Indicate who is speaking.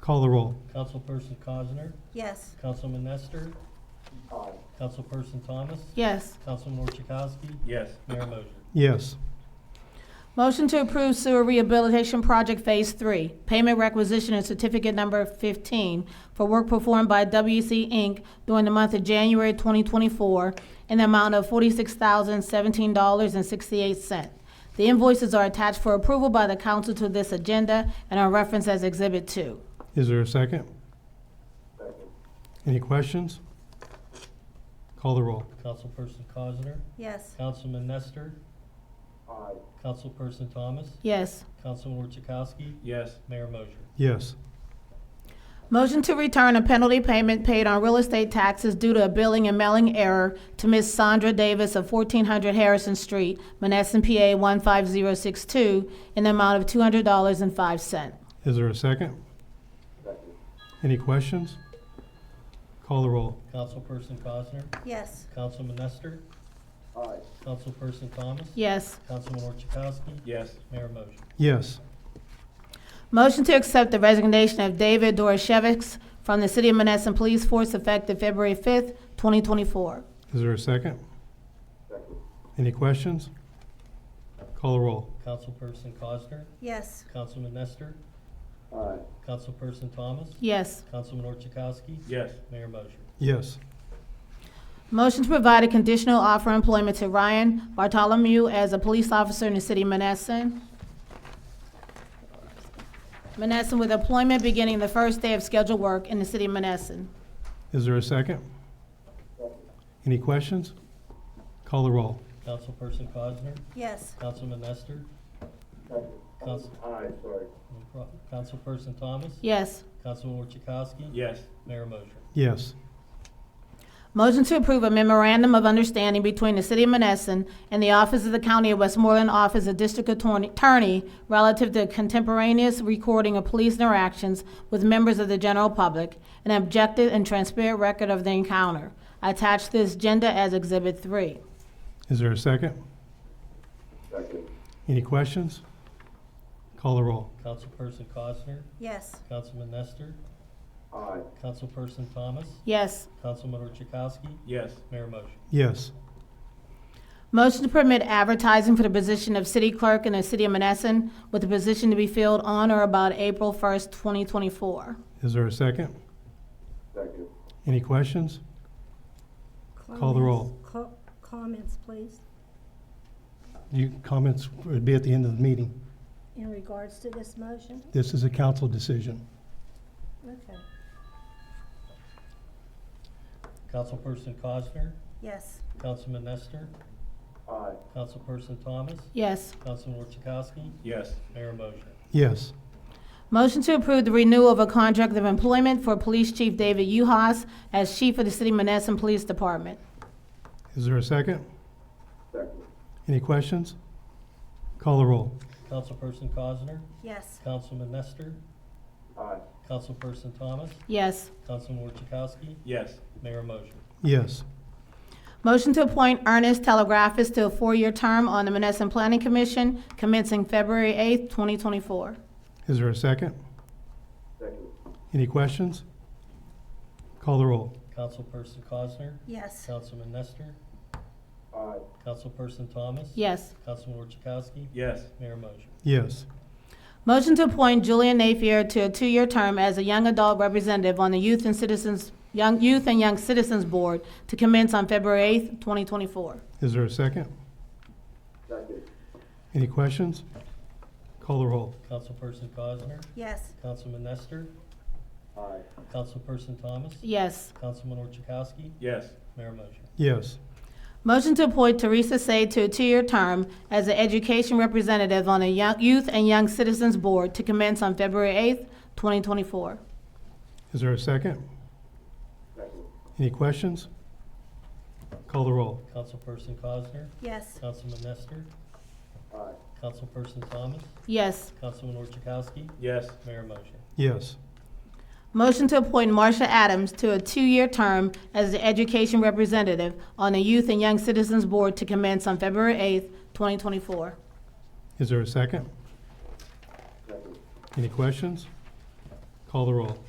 Speaker 1: Call the roll.
Speaker 2: Councilperson Cosner,
Speaker 3: Yes.
Speaker 2: Councilman Nestor, Councilperson Thomas,
Speaker 4: Yes.
Speaker 2: Councilman Orchakowski,
Speaker 5: Yes.
Speaker 2: Mayor Mosher.
Speaker 1: Yes.
Speaker 4: Motion to approve sewer rehabilitation project phase three, payment requisition and certificate number fifteen for work performed by WC Inc. during the month of January twenty twenty-four in the amount of forty-six thousand seventeen dollars and sixty-eight cent. The invoices are attached for approval by the council to this agenda and are referenced as exhibit two.
Speaker 1: Is there a second? Any questions? Call the roll.
Speaker 2: Councilperson Cosner,
Speaker 3: Yes.
Speaker 2: Councilman Nestor, Councilperson Thomas,
Speaker 4: Yes.
Speaker 2: Councilman Orchakowski,
Speaker 5: Yes.
Speaker 2: Mayor Mosher.
Speaker 1: Yes.
Speaker 4: Motion to return a penalty payment paid on real estate taxes due to a billing and mailing error to Ms. Sandra Davis of 1400 Harrison Street, Monessen, PA 15062, in the amount of $200.05.
Speaker 1: Is there a second? Any questions? Call the roll.
Speaker 2: Councilperson Cosner,
Speaker 3: Yes.
Speaker 2: Councilman Nestor, Councilperson Thomas,
Speaker 4: Yes.
Speaker 2: Councilman Orchakowski,
Speaker 5: Yes.
Speaker 2: Mayor Mosher.
Speaker 1: Yes.
Speaker 4: Motion to accept the resignation of David Doroshevics from the City of Monessen Police Force effective February 5th, 2024.
Speaker 1: Is there a second? Any questions? Call the roll.
Speaker 2: Councilperson Cosner,
Speaker 3: Yes.
Speaker 2: Councilman Nestor, Councilperson Thomas,
Speaker 4: Yes.
Speaker 2: Councilman Orchakowski,
Speaker 5: Yes.
Speaker 2: Mayor Mosher.
Speaker 1: Yes.
Speaker 4: Motion to provide a conditional offer of employment to Ryan Bartholomew as a police officer in the city of Menneson. Menneson with employment beginning the first day of scheduled work in the city of Menneson.
Speaker 1: Is there a second? Any questions? Call the roll.
Speaker 2: Councilperson Cosner,
Speaker 3: Yes.
Speaker 2: Councilman Nestor, Council- no problem. Councilperson Thomas,
Speaker 4: Yes.
Speaker 2: Councilman Orchakowski,
Speaker 5: Yes.
Speaker 2: Mayor Mosher.
Speaker 1: Yes.
Speaker 4: Motion to approve a memorandum of understanding between the city of Menneson and the Office of the County of Westmoreland Office of District Attorney- Attorney relative to contemporaneous recording of police interactions with members of the general public, an objective and transparent record of the encounter. I Attach this agenda as Exhibit 3.
Speaker 1: Is there a second? Any questions? Call the roll.
Speaker 2: Councilperson Cosner,
Speaker 3: Yes.
Speaker 2: Councilman Nestor, Councilperson Thomas,
Speaker 4: Yes.
Speaker 2: Councilman Orchakowski,
Speaker 5: Yes.
Speaker 2: Mayor Mosher.
Speaker 1: Yes.
Speaker 4: Motion to permit advertising for the position of city clerk in the city of Menneson with the position to be filled on or about April 1st, 2024.
Speaker 1: Is there a second? Any questions? Call the roll.
Speaker 6: Comments, please,
Speaker 1: You, comments would be at the end of the meeting.
Speaker 6: in regards to this motion?
Speaker 1: This is a council decision.
Speaker 6: Okay.
Speaker 2: Councilperson Cosner,
Speaker 3: Yes.
Speaker 2: Councilman Nestor, Councilperson Thomas,
Speaker 4: Yes.
Speaker 2: Councilman Orchakowski,
Speaker 5: Yes.
Speaker 2: Mayor Mosher.
Speaker 1: Yes.
Speaker 4: Motion to approve the renewal of a contract of employment for Police Chief David Uhas as Chief of the City Monessen Police Department.
Speaker 1: Is there a second? Any questions? Call the roll.
Speaker 2: Councilperson Cosner,
Speaker 3: Yes.
Speaker 2: Councilman Nestor, Councilperson Thomas,
Speaker 4: Yes.
Speaker 2: Councilman Orchakowski,
Speaker 5: Yes.
Speaker 2: Mayor Mosher.
Speaker 1: Yes.
Speaker 4: Motion to appoint Ernest Telegraphis to a four-year term on the Monessen Planning Commission commencing February 8th, 2024.
Speaker 1: Is there a second? Any questions? Call the roll.
Speaker 2: Councilperson Cosner,
Speaker 3: Yes.
Speaker 2: Councilman Nestor, Councilperson Thomas,
Speaker 4: Yes.
Speaker 2: Councilman Orchakowski,
Speaker 5: Yes.
Speaker 2: Mayor Mosher.
Speaker 1: Yes.
Speaker 4: Motion to appoint Julian Napier to a two-year term as a young adult representative on the Youth and Citizens, Young, Youth and Young Citizens Board to commence on February 8th, 2024.
Speaker 1: Is there a second? Any questions? Call the roll.
Speaker 2: Councilperson Cosner,
Speaker 3: Yes.
Speaker 2: Councilman Nestor, Councilperson Thomas,
Speaker 4: Yes.
Speaker 2: Councilman Orchakowski,
Speaker 5: Yes.
Speaker 2: Mayor Mosher.
Speaker 1: Yes.
Speaker 4: Motion to appoint Teresa Say to a two-year term as an education representative on the Young- Youth and Young Citizens Board to commence on February 8th, 2024.
Speaker 1: Is there a second? Any questions? Call the roll.
Speaker 2: Councilperson Cosner,
Speaker 3: Yes.
Speaker 2: Councilman Nestor, Councilperson Thomas,
Speaker 4: Yes.
Speaker 2: Councilman Orchakowski,
Speaker 5: Yes.
Speaker 2: Mayor Mosher.
Speaker 1: Yes.
Speaker 4: Motion to appoint Marsha Adams to a two-year term as the education representative on the Youth and Young Citizens Board to commence on February 8th, 2024.
Speaker 1: Is there a second? Any questions? Call Call the roll.